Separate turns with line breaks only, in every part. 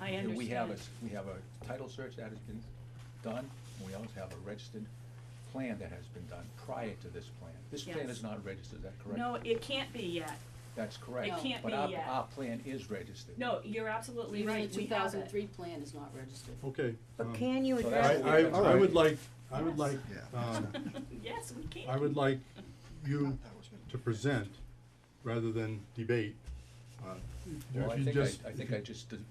I
here We have a,
understand.
we have a title search that has been done, and we also have a registered plan that has been done prior to this plan. This plan
Yes.
is not registered, is that correct?
No, it can't be yet.
That's correct.
can't be
But
yet.
our, our plan is registered.
No, you're absolutely
Even the
right, we
two
have
thousand
it.
three plan is not registered.
Okay.
But
um,
can you
So
I,
that's
address,
I,
what we're
I would
doing.
like, I would like,
Yes.
um,
Yes, we can.
I would like you to present rather than debate. Uh,
Well,
if
I
you
think
just-
I, I
if
think
you-
I just d- d-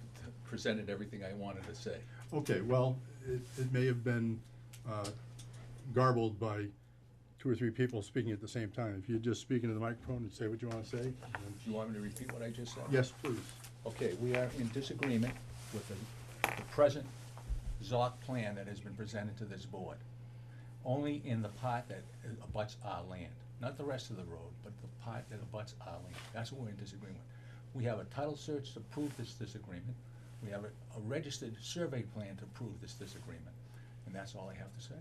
presented everything I wanted to say.
Okay, well, it, it may have been, uh, garbled by two or three people speaking at the same time. If you just speak into the microphone and say what you wanna say, then-
Do you want me to repeat what I just said?
yes, please.
Okay, we are in disagreement with the, the present ZOC plan that has been presented to this board. Only in the part that abuts our land, not the rest of the road, but the part that abuts our land. That's what we're in disagreement. We have a title search to prove this disagreement. We have a, a registered survey plan to prove this disagreement. And that's all I have to say.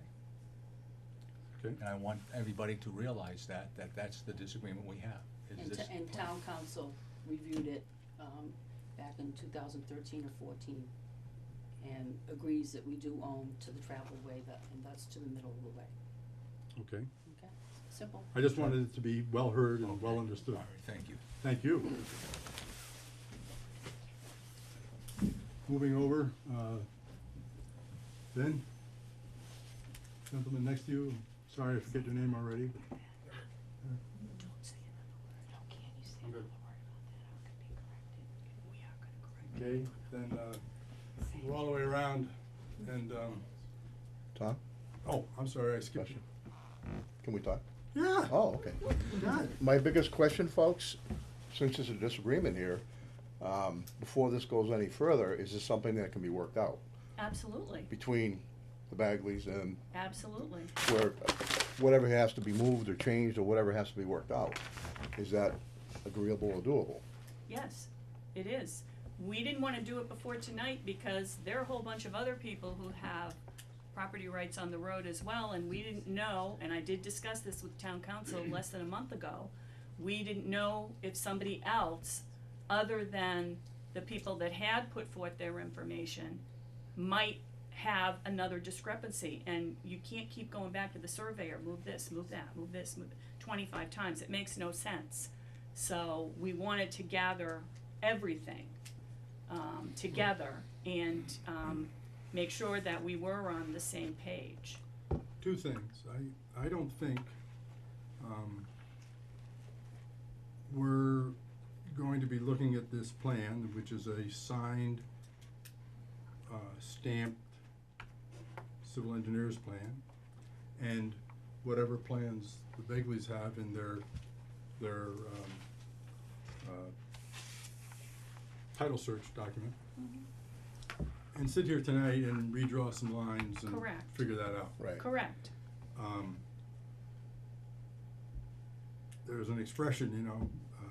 Okay,
And I want everybody to realize that, that that's the disagreement we have. is
And,
this
t- and
plan.
town council reviewed it, um, back in two thousand thirteen or fourteen, and agrees that we do own to the travel way, that, and that's to the middle of the way,
okay.
okay? Simple.
I just wanted it to be well heard and well
All
understood.
right, thank you.
Thank you. Moving over, uh, Ben, gentleman next to you, sorry I forget your name already. I'm good. Okay, then, uh, go all the way around and, um,
Tom,
oh, I'm sorry, I skipped you.
can we talk?
Yeah.
Oh, okay.
God.
My biggest question, folks, since there's a disagreement here, um, before this goes any further, is this something that can be worked out
Absolutely,
between the Bagleys and
absolutely.
where, whatever has to be moved or changed or whatever has to be worked out? Is that agreeable or doable?
Yes, it is. We didn't wanna do it before tonight because there are a whole bunch of other people who have property rights on the road as well, and we didn't know, and I did discuss this with town council less than a month ago. We didn't know if somebody else, other than the people that had put forth their information, might have another discrepancy, and you can't keep going back to the surveyor, move this, move that, move this, move, twenty-five times, it makes no sense. So we wanted to gather everything, um, together and, um, make sure that we were on the same page.
Two things. I, I don't think, um, we're going to be looking at this plan, which is a signed, uh, stamped civil engineer's plan, and whatever plans the Begleys have in their, their, um, uh, title search document. And sit here tonight and redraw some lines and
Correct.
figure that out.
Right.
Correct,
Um, there's an expression, you know, uh,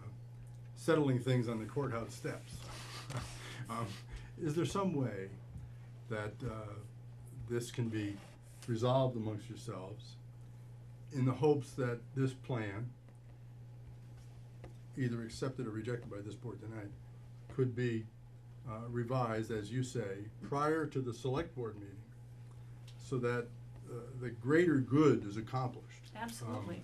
settling things on the courthouse steps. um, is there some way that uh, this can be resolved amongst yourselves in the hopes that this plan, either accepted or rejected by this board tonight, could be uh, revised, as you say, prior to the select board meeting so that uh, the greater good is accomplished?
absolutely.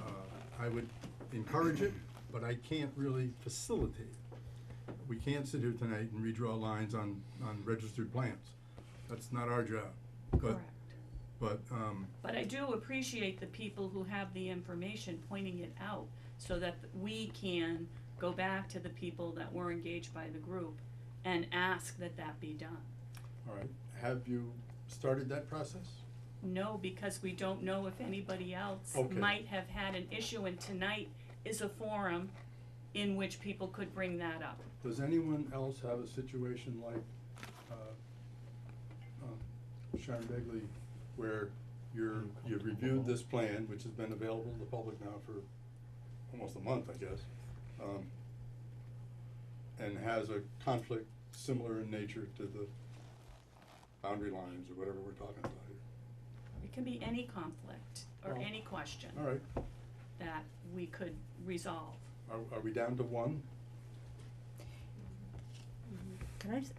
uh, I would encourage it, but I can't really facilitate it. We can't sit here tonight and redraw lines on, on registered plans. That's not our job. But,
Correct.
but, um,
But I do appreciate the people who have the information pointing it out so that we can go back to the people that were engaged by the group and ask that that be done.
all right, have you started that process?
No, because we don't know if anybody else
Okay.
might have had an issue, and tonight is a forum in which people could bring that up.
Does anyone else have a situation like, uh, um, Sharon Begley, where you're, you've reviewed this plan, which has been available to the public now for almost a month, I guess, um, and has a conflict similar in nature to the boundary lines or whatever we're talking about here?
It can be any conflict or
Well-
any question
All right,
that we could resolve.
are, are we down to one?
can I just